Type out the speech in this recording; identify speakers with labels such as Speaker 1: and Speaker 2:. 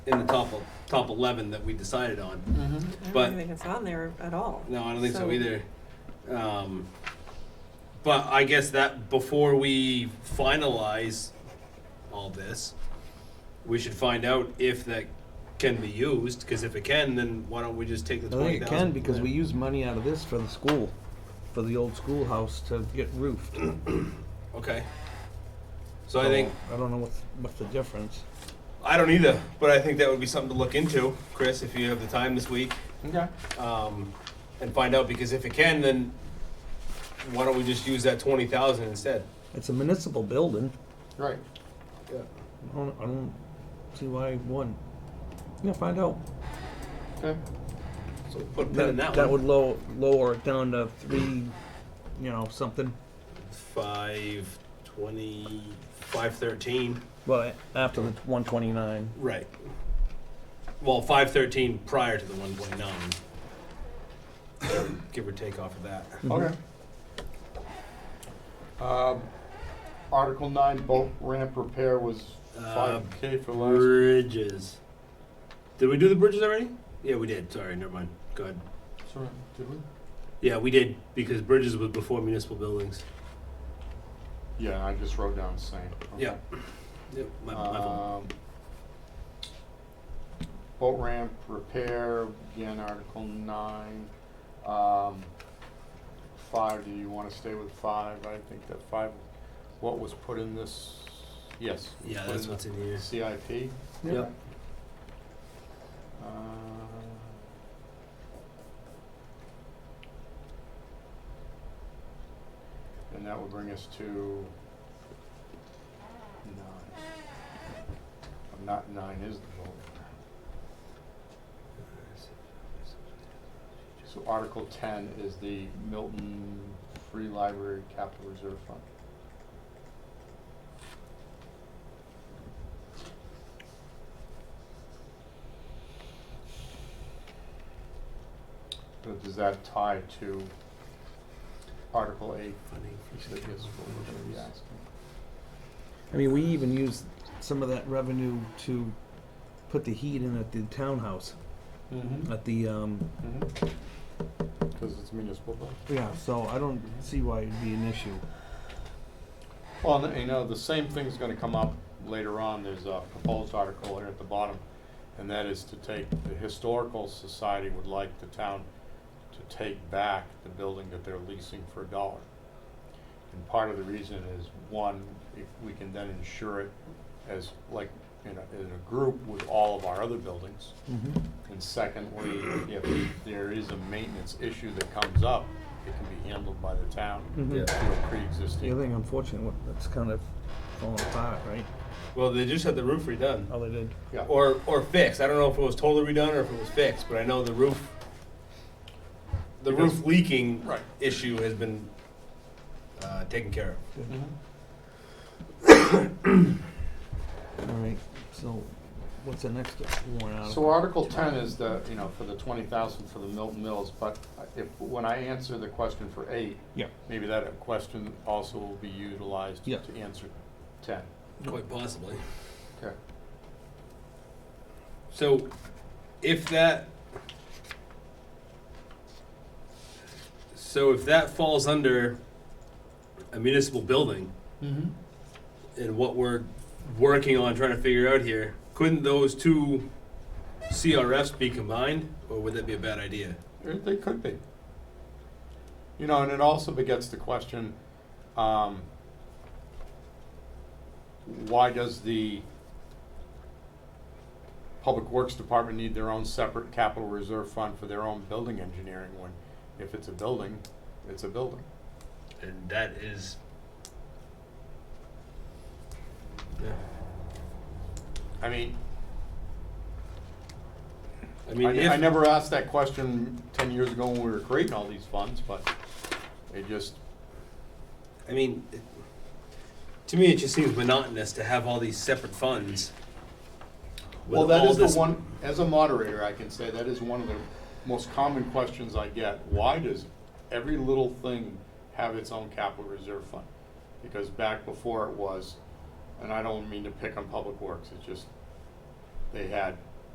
Speaker 1: in the top of, top eleven that we decided on.
Speaker 2: Mm-hmm.
Speaker 3: I
Speaker 1: But-
Speaker 3: don't think it's on there at all.
Speaker 1: No, I don't think so, either. Um, but I guess that before we finalize all this, we should find out if that can be used. Because if it can, then why don't we just take the
Speaker 2: I
Speaker 1: twenty
Speaker 2: think it can
Speaker 1: thousand?
Speaker 2: because we use money out of this for the school, for the old schoolhouse to get roofed.
Speaker 1: Okay. So I think
Speaker 2: I don't know what's, what's the difference.
Speaker 1: I don't either, but I think that would be something to look into, Chris, if you have the time this week.
Speaker 2: Okay.
Speaker 1: um, and find out because if it can, then why don't we just use that twenty thousand instead?
Speaker 2: It's a municipal building.
Speaker 4: Right.
Speaker 2: I don't, I don't see why one. Yeah, find out.
Speaker 4: Okay.
Speaker 1: So put a pin in that, one.
Speaker 2: would low, lower it down to three, you know, something.
Speaker 1: Five twenty, five thirteen.
Speaker 2: Well, after the 129.
Speaker 1: Right. Well, five thirteen prior to the one point nine. Give or take off of that.
Speaker 4: Okay. Um, Article nine, boat ramp repair was
Speaker 1: Uh,
Speaker 4: five K for last.
Speaker 1: Bridges. Did we do the bridges already? Yeah, we did. Sorry, never mind. Go ahead.
Speaker 4: Sorry, did we?
Speaker 1: Yeah, we did because bridges was before municipal buildings.
Speaker 4: Yeah, I just wrote down same. Okay.
Speaker 1: Yeah. Uh, Yep. My, my fault.
Speaker 4: Um, boat ramp repair, again, Article nine. Um, five, do you wanna stay with five? I think that five, what was put in this, yes. was
Speaker 1: Yeah,
Speaker 4: put
Speaker 1: that's
Speaker 4: in
Speaker 1: what's in here.
Speaker 4: the CIP.
Speaker 1: Yep.
Speaker 4: Uh, And that would bring us to nine. But Not nine is the vote. So Article ten is the Milton Free Library Capital Reserve Fund. But does that tie to Article eight?
Speaker 1: Funding
Speaker 4: Is that yes, what we're gonna be asking?
Speaker 2: I mean, we even used some of that revenue to put the heat in at the townhouse,
Speaker 4: Mm-hmm.
Speaker 2: at the, um,
Speaker 4: Because Mm-hmm. it's municipal, but.
Speaker 2: yeah, so I don't see why it'd be an issue.
Speaker 4: Well, and, you know, the same thing's gonna come up later on, there's a proposed article here at the bottom, and that is to take, the Historical Society would like the town to take back the building that they're leasing for a dollar. And part of the reason is, one, if we can then insure it as, like, in a, in a group with all of our other buildings.
Speaker 2: Mm-hmm.
Speaker 4: And secondly, if there is a maintenance issue that comes up, it can be handled by the town
Speaker 2: Mhm.
Speaker 4: through
Speaker 2: Yeah.
Speaker 4: a
Speaker 2: The other
Speaker 4: pre-existing.
Speaker 2: thing, unfortunate, what- that's kind of falling apart, right?
Speaker 1: Well, they just had the roof redone
Speaker 2: Oh, they did.
Speaker 4: Yeah.
Speaker 1: or or fixed. I don't know if it was totally redone or if it was fixed, but I know the roof, the roof leaking
Speaker 4: Right.
Speaker 1: issue has been uh, taken care of.
Speaker 4: mm-hmm.
Speaker 2: All right, so what's the next warrant
Speaker 4: So
Speaker 2: article?
Speaker 4: Article ten is the, you know, for the twenty thousand for the Milton Mills, but if, when I answer the question for eight,
Speaker 2: Yeah.
Speaker 4: maybe that question also will be utilized
Speaker 2: Yeah.
Speaker 4: to answer ten.
Speaker 1: Quite possibly.
Speaker 4: Okay.
Speaker 1: So, if that, so if that falls under a municipal building,
Speaker 4: Mm-hmm.
Speaker 1: and what we're working on trying to figure out here, couldn't those two CRFs be combined, or would that be a bad idea?
Speaker 4: They- They could be. You know, and it also begets the question, um, why does the Public Works Department need their own separate capital reserve fund for their own building engineering when, if it's a building, it's a building?
Speaker 1: And that is. Yeah.
Speaker 4: I mean,
Speaker 1: I
Speaker 4: I,
Speaker 1: mean,
Speaker 4: I
Speaker 1: if,
Speaker 4: never asked that question ten years ago when we were creating all these funds, but it just,
Speaker 1: I mean, it- to me, it just seems monotonous to have all these separate funds. with
Speaker 4: Well, that
Speaker 1: all
Speaker 4: is the
Speaker 1: this-
Speaker 4: one, as a moderator, I can say that is one of the most common questions I get. Why does every little thing have its own capital reserve fund? Because back before it was, and I don't mean to pick on Public Works, it's just, they had